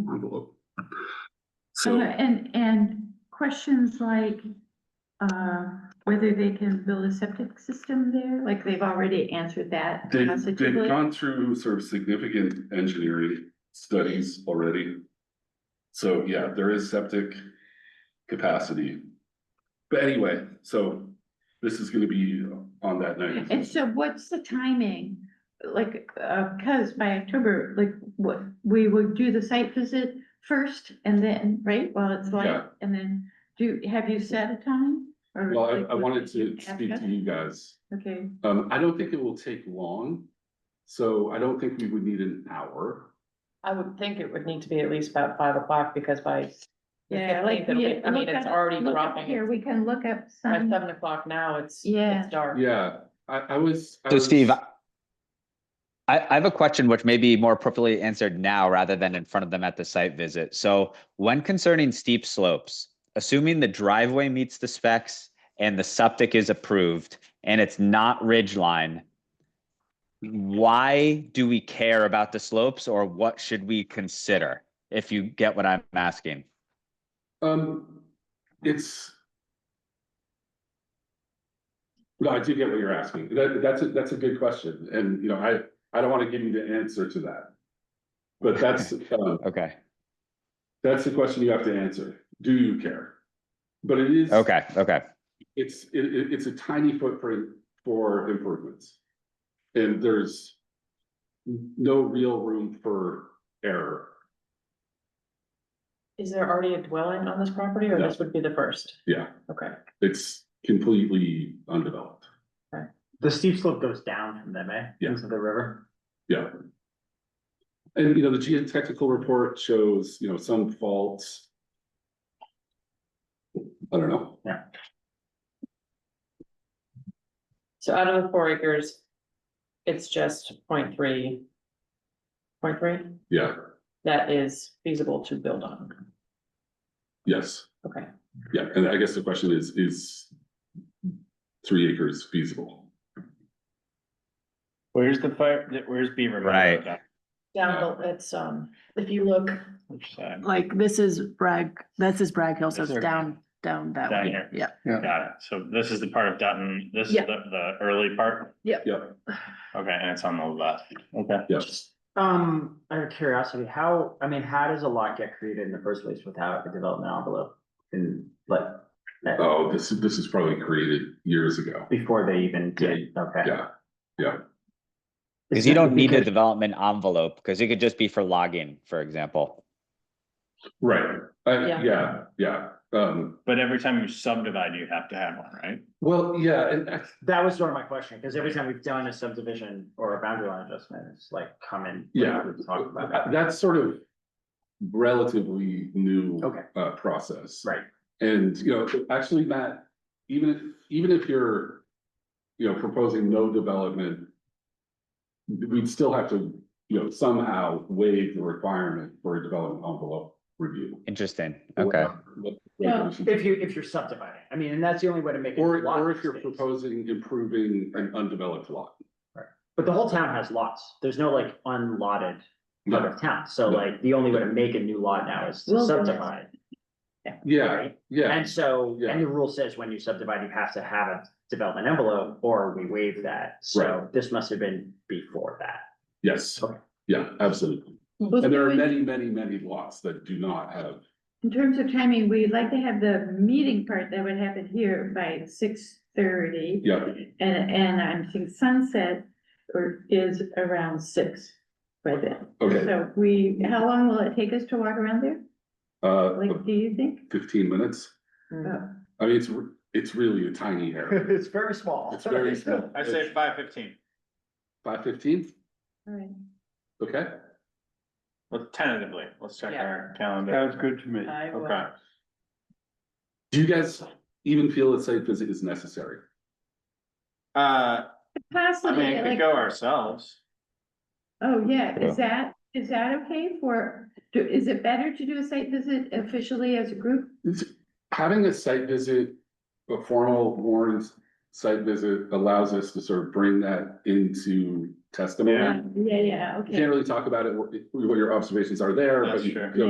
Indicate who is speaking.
Speaker 1: envelope.
Speaker 2: And,
Speaker 1: So,
Speaker 2: and, and questions like, uh, whether they can build a septic system there, like they've already answered that
Speaker 1: they, they've
Speaker 2: positively.
Speaker 1: gone through sort of significant engineering studies already. So, yeah, there is septic capacity. But anyway, so this is gonna be on that
Speaker 2: And
Speaker 1: night.
Speaker 2: so what's the timing? Like, uh, cause by October, like, what, we would do the site visit first and then, right, while it's light?
Speaker 1: Yeah.
Speaker 2: And then do, have you set a time? Or,
Speaker 1: Well,
Speaker 2: like,
Speaker 1: I, I
Speaker 2: would
Speaker 1: wanted
Speaker 2: you
Speaker 1: to
Speaker 2: ask
Speaker 1: speak
Speaker 2: us?
Speaker 1: to you guys.
Speaker 2: Okay,
Speaker 1: Um, I don't think it will take long. So I don't think we would need an hour.
Speaker 3: I would think it would need to be at least about five o'clock because by. the
Speaker 2: yeah,
Speaker 3: 15th,
Speaker 2: like.
Speaker 3: it'll
Speaker 2: yeah,
Speaker 3: be- I mean,
Speaker 2: look
Speaker 3: it's
Speaker 2: up-
Speaker 3: already
Speaker 2: look up
Speaker 3: dropping.
Speaker 2: Here,
Speaker 3: It's-
Speaker 2: we can look up
Speaker 3: By
Speaker 2: some.
Speaker 3: seven o'clock now, it's,
Speaker 2: Yeah.
Speaker 3: it's dark.
Speaker 1: Yeah, I, I was. I
Speaker 4: So
Speaker 1: was-
Speaker 4: Steve, I, I have a question which may be more appropriately answered now rather than in front of them at the site visit. So when concerning steep slopes, assuming the driveway meets the specs and the septic is approved and it's not ridge line, why do we care about the slopes or what should we consider? If you get what I'm asking.
Speaker 1: Um, it's. No, I do get what you're asking. That, that's, a that's a good question. And, you know, I, I don't want to give you the answer to that. But that's, um,
Speaker 4: Okay,
Speaker 1: that's the question you have to answer. Do you care? But it is.
Speaker 4: okay, okay.
Speaker 1: It's, it, it, it's a tiny footprint for improvements. And there's no real room for error.
Speaker 3: Is there already a dwelling on this property or
Speaker 1: No.
Speaker 3: this would be the first?
Speaker 1: Yeah,
Speaker 3: Okay.
Speaker 1: it's completely undeveloped.
Speaker 5: The steep slope goes down from them, eh?
Speaker 1: Yeah.
Speaker 5: Into the river.
Speaker 1: Yeah. And, you know, the geotechnical report shows, you know, some faults. I don't know.
Speaker 3: So out of the four acres, it's just point three. Point three,
Speaker 1: Yeah,
Speaker 3: that is feasible to build on.
Speaker 1: yes,
Speaker 3: Okay,
Speaker 1: yeah. And I guess the question is, is three acres feasible?
Speaker 6: Where's the fire, that- where's Beaver? Meadow
Speaker 4: Right.
Speaker 6: down
Speaker 3: down, the- it's, um, if you look,
Speaker 6: which side?
Speaker 7: Like this is Bragg, this is Bragg Hill, so
Speaker 6: This
Speaker 7: it's
Speaker 6: is-
Speaker 7: down, down that
Speaker 6: Down
Speaker 7: way,
Speaker 6: here.
Speaker 7: yeah.
Speaker 6: Got it. So this is the part of Dutton, this is the,
Speaker 7: Yeah.
Speaker 6: the early part?
Speaker 1: Yeah,
Speaker 6: Okay, and it's on the left. Okay.
Speaker 1: yes.
Speaker 5: Um, out of curiosity, how, I mean, how does a lot get created in the first place without a development envelope? And like,
Speaker 1: Oh, this, is this is probably created years ago.
Speaker 5: before they even did, okay.
Speaker 1: Yeah, yeah.
Speaker 4: Cause you don't need a development envelope because it could just be for logging, for example.
Speaker 1: Right. Uh,
Speaker 3: Yeah.
Speaker 1: yeah, yeah. Um,
Speaker 6: But every time you subdivide, you have to have one, right?
Speaker 1: well, yeah, and I-
Speaker 5: That was sort of my question, because every time we've done a subdivision or a boundary line adjustment, it's like coming.
Speaker 1: Yeah.
Speaker 5: We've talked about that.
Speaker 1: That's sort of relatively new.
Speaker 5: Okay.
Speaker 1: Uh, process.
Speaker 5: Right.
Speaker 1: And, you know, actually, Matt, even if, even if you're, you know, proposing no development. We'd still have to, you know, somehow waive the requirement for a development envelope review.
Speaker 4: Interesting, okay.
Speaker 1: What-
Speaker 3: Well,
Speaker 5: If you, if you're subdividing, I mean, and that's the only way to make. it
Speaker 1: Or,
Speaker 5: lot
Speaker 1: or if you're
Speaker 5: space.
Speaker 1: proposing improving an undeveloped lot.
Speaker 5: But the whole town has lots. There's no like unlotted part of town. So
Speaker 1: No.
Speaker 5: like the only way to make a new lot now is to
Speaker 2: Wilderness.
Speaker 5: subdivide.
Speaker 1: Yeah,
Speaker 5: right?
Speaker 1: yeah,
Speaker 5: And so,
Speaker 1: Yeah.
Speaker 5: and the rule says when you subdivide, you have to have a development envelope or we waive that. So
Speaker 1: Right.
Speaker 5: this must have been before that.
Speaker 1: yes,
Speaker 5: Okay.
Speaker 1: yeah, absolutely.
Speaker 2: Well,
Speaker 1: And there
Speaker 2: so
Speaker 1: are
Speaker 2: in-
Speaker 1: many, many, many lots that do not have
Speaker 2: In terms of timing, we'd like to have the meeting part that would happen here by six thirty.
Speaker 1: Yeah.
Speaker 2: And, and I'm thinking sunset or is around six by then.
Speaker 1: Okay,
Speaker 2: So we, how long will it take us to walk around there?
Speaker 1: uh,
Speaker 2: Like, do you think?
Speaker 1: fifteen minutes.
Speaker 3: Hmm, uh,
Speaker 1: I mean, it's, re- it's really a tiny area.
Speaker 5: It's very small.
Speaker 1: It's very small.
Speaker 6: I say five fifteen,
Speaker 1: Five fifteen,
Speaker 2: All right.
Speaker 1: okay?
Speaker 6: well, tentatively, let's check
Speaker 3: Yeah.
Speaker 6: our calendar. Sounds good to me.
Speaker 3: I will-
Speaker 6: Okay,
Speaker 1: Do you guys even feel a site visit is necessary?
Speaker 6: uh, I mean,
Speaker 2: Possibly,
Speaker 6: it could
Speaker 2: like,
Speaker 6: go ourselves.
Speaker 2: oh, yeah,
Speaker 4: Yeah.
Speaker 2: is that, is that okay for, do, is it better to do a site visit officially as a group?
Speaker 1: It's- Having a site visit, a formal warrant site visit allows us to sort of bring that into testimony.
Speaker 6: Yeah.
Speaker 2: Yeah, yeah, okay.
Speaker 1: You Can't really talk about it, what what your observations are there, but
Speaker 6: That's
Speaker 1: you
Speaker 6: true.
Speaker 1: you know,